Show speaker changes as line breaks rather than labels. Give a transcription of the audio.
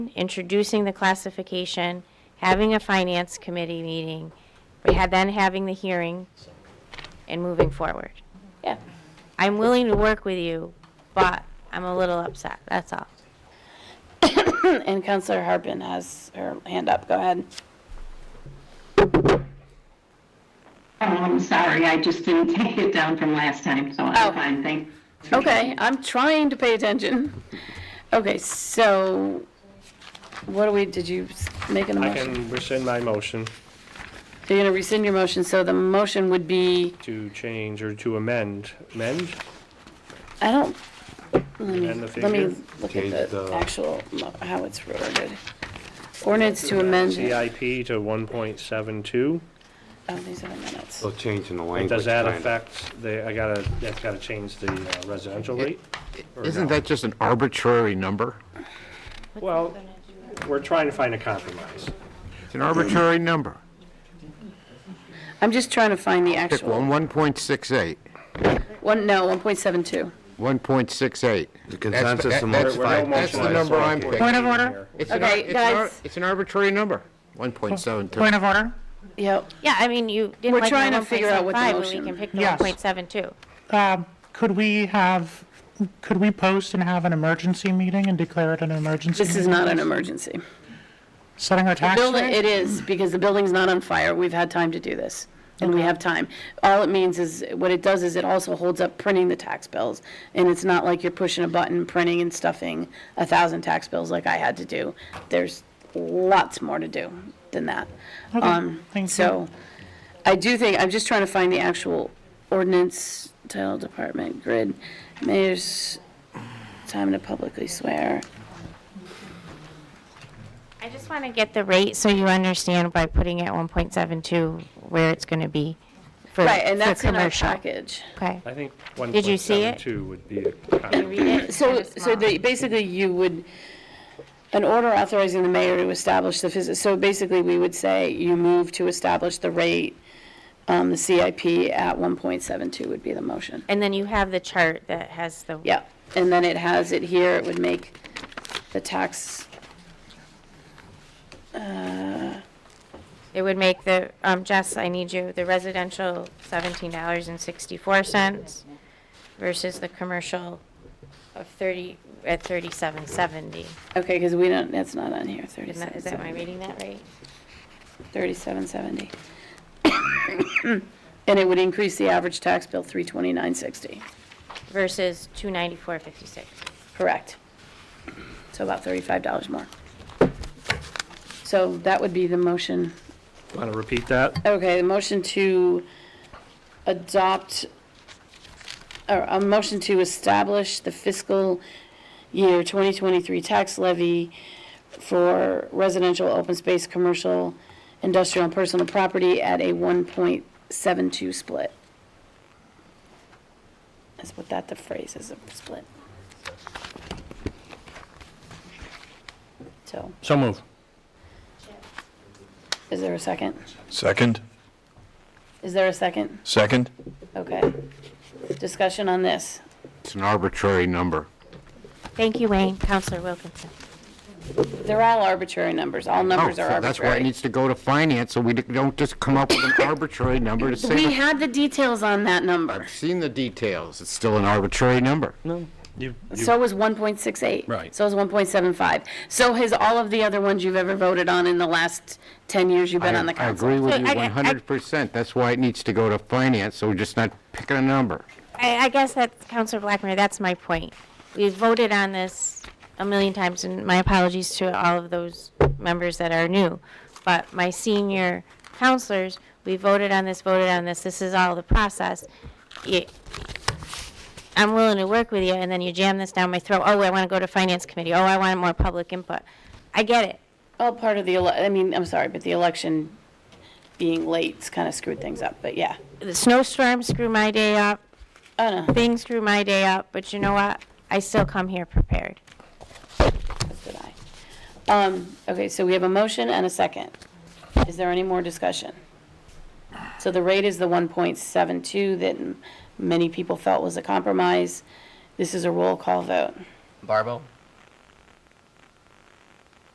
introducing the classification, having a finance committee meeting, we had then having the hearing, and moving forward.
Yeah.
I'm willing to work with you, but I'm a little upset, that's all.
And Counselor Harpin has her hand up. Go ahead.
Oh, I'm sorry, I just didn't take it down from last time, so
Oh.
I'm fine, thank.
Okay, I'm trying to pay attention. Okay, so what do we, did you s- make an
I
motion?
can rescind my motion
So you're going to rescind your motion, so the motion would be,
to change or to amend, amend?
I don't,
Amend the
let me
figure?
look
Change
at the
the-
actual, mo- how it's worded. Ordinance to amend, oh,
CIP to 1.72?
these are the minutes.
So changing the language.
Does that
kinda.
affect the, I gotta, that's gotta change the uh, residential rate? or
Isn't
no?
that just an arbitrary number?
Well, we're trying to find a compromise.
It's an arbitrary number.
I'm just trying to find the
Pick
actual,
one, 1.68,
one, no, 1.72.
1.68.
The consensus among
That's
We're- we're no
fine. That's the
motion,
number
so
I'm
we're-
picking.
Point of
we're-
order?
It's an ar-
Okay,
it's an ar-
guys.
It's an arbitrary number, 1.72.
Point of order?
Yep.
Yeah, I mean, you didn't
We're
like
trying
my
to figure out what the
1.75, but we
motion-
can pick the
Yes.
1.72.
Um, Could we have, could we post and have an emergency meeting and declare it an emergency?
This is
meeting?
not an emergency.
Setting our tax
Building,
rate?
it is, because the building's not on fire. We've had time to do this, and we have time. All it means is, what it does is it also holds up printing the tax bills, and it's not like you're pushing a button, printing and stuffing a thousand tax bills like I had to do. There's lots more to do than that.
Okay,
Um,
thank you.
So, I do think, I'm just trying to find the actual ordinance, title, department, grid, mayor's time to publicly swear.
I just want to get the rate so you understand by putting it 1.72 where it's going to be for for commercial.
Right, and that's in our package.
Okay.
I think
Did you see it?
1.72 would be a compromise.
So, so the, basically you would, an order authorizing the mayor to establish the, phys- so basically we would say you move to establish the rate, um, the CIP at one point seven two would be the motion.
And then you have the chart that has the.
Yeah, and then it has it here, it would make the tax,
It would make the, um, Jess, I need you, the residential seventeen dollars and sixty-four cents versus the commercial of thirty, at thirty-seven seventy.
okay, because we don't, that's not on here,
Is
thirty-seven
that, is that, am I reading that right?
3770. And it would increase the average tax bill 32960,
Versus two ninety-four fifty-six.
correct? So about $35 more. So that would be the motion.
Want to repeat that?
Okay, the motion to adopt, or a motion to establish the fiscal year 2023 tax levy for residential, open space, commercial, industrial, and personal property at a 1.72 split. That's what that, the phrase is, a split. So,
So move.
is there a second?
Second?
Is there a second?
Second?
Okay. Discussion on this.
It's an arbitrary number.
Thank you, Wayne. Counselor Wilkinson.
They're all arbitrary numbers. All
Oh,
numbers
so
are
That's why it
arbitrary.
needs to go to finance, so we don't just come up with an arbitrary number to say,
We
the-
had the details on that number.
I've seen the details, it's still an arbitrary number.
You,
So was 1.68.
Right.
So was 1.75. So has all of the other ones you've ever voted on in the last 10 years you've been
I-
on the
I
council.
agree with
So
you
I- I-
100%, that's why it needs to go to finance, so we're just not picking a number.
I, I guess that, Counselor Blackmer, that's my point. We voted on this a million times, and my apologies to all of those members that are new. But my senior counselors, we voted on this, voted on this, this is all the process. You- I'm willing to work with you, and then you jam this down my throat, oh, I want to go to finance committee, oh, I want more public input. I get it.
All part of the, ele- I mean, I'm sorry, but the election being late's kind of screwed things up, but yeah.
The snowstorm screwed my day up,
Oh, no,
things screwed my day up, but you know what? I still come here prepared.
that's good eye. Um, okay, so we have a motion and a second. Is there any more discussion? So the rate is the 1.72 that m- many people felt was a compromise. This is a roll call vote.
Barbo,